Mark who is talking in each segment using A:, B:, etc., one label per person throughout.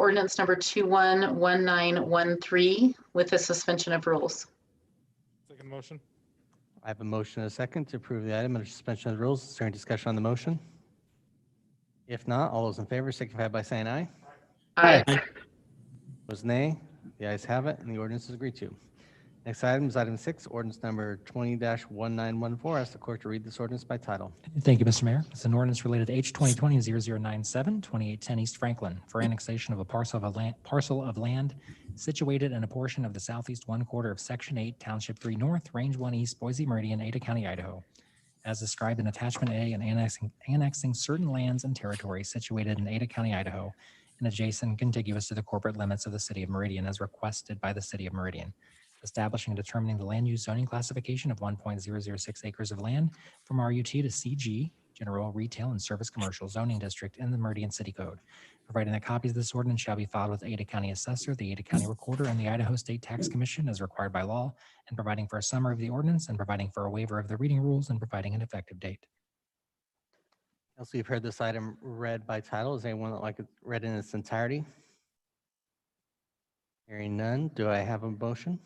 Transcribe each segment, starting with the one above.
A: ordinance number 211913 with a suspension of rules.
B: Second motion?
C: I have a motion and a second to approve the item under suspension of the rules. Is there any discussion on the motion? If not, all those in favor signify by saying aye.
A: Aye.
C: Those nay. The ayes have it, and the ordinance is agreed to. Next item is item six, ordinance number twenty one nine one four. Ask the clerk to read this ordinance by title.
D: Thank you, Mr. Mayor. It's an ordinance related to H 2020-0097, 2810 East Franklin for annexation of a parcel of land, parcel of land situated in a portion of the southeast one quarter of Section 8, Township 3 North, Range 1 East, Boise Meridian, Ada County, Idaho, as described in Attachment A and annexing, annexing certain lands and territory situated in Ada County, Idaho, and adjacent contiguous to the corporate limits of the city of Meridian as requested by the city of Meridian, establishing and determining the land use zoning classification of 1.006 acres of land from RUT to CG, General Retail and Service Commercial Zoning District in the Meridian City Code, providing that copies of this ordinance shall be filed with the Ada County Assessor, the Ada County Recorder, and the Idaho State Tax Commission as required by law, and providing for a summary of the ordinance and providing for a waiver of the reading rules and providing an effective date.
C: Also, you've heard this item read by title. Is anyone that like it read in its entirety? Hearing none, do I have a motion?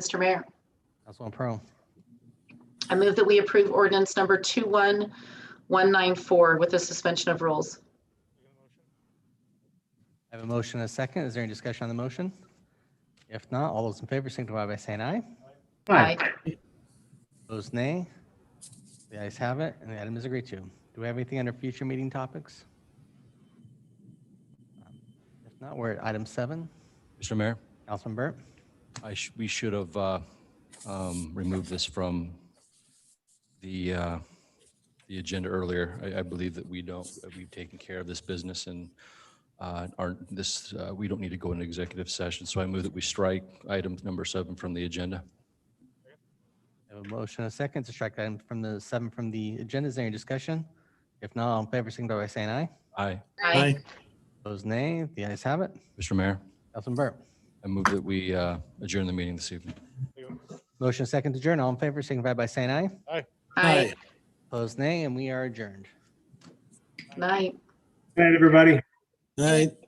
A: Mr. Mayor,
C: Councilwoman Pearl,
A: I move that we approve ordinance number 21194 with a suspension of rules.
B: Second motion?
C: I have a motion and a second. Is there any discussion on the motion? If not, all those in favor signify by saying aye.
A: Aye.
C: Those nay. The ayes have it, and the item is agreed to. Do we have anything under future meeting topics? If not, we're at item seven.
E: Mr. Mayor,
C: Councilman Burt,
E: I sh- we should have uh, um, removed this from the, uh, the agenda earlier. I, I believe that we don't, that we've taken care of this business and uh, aren't, this, uh, we don't need to go into executive session. So I move that we strike item number seven from the agenda.
C: I have a motion and a second to strike item from the seven from the agenda. Is there any discussion? If not, all in favor signify by saying aye.
E: Aye.
A: Aye.
C: Those nay. The ayes have it.
E: Mr. Mayor,
C: Councilman Burt.
E: I move that we uh, adjourn the meeting this evening.
B: Second-
C: Motion and second to adjourn. All in favor signify by saying aye.
A: Aye.
C: Opposed, nay, and we are adjourned.
A: Aye.
F: Good night, everybody.
G: All right.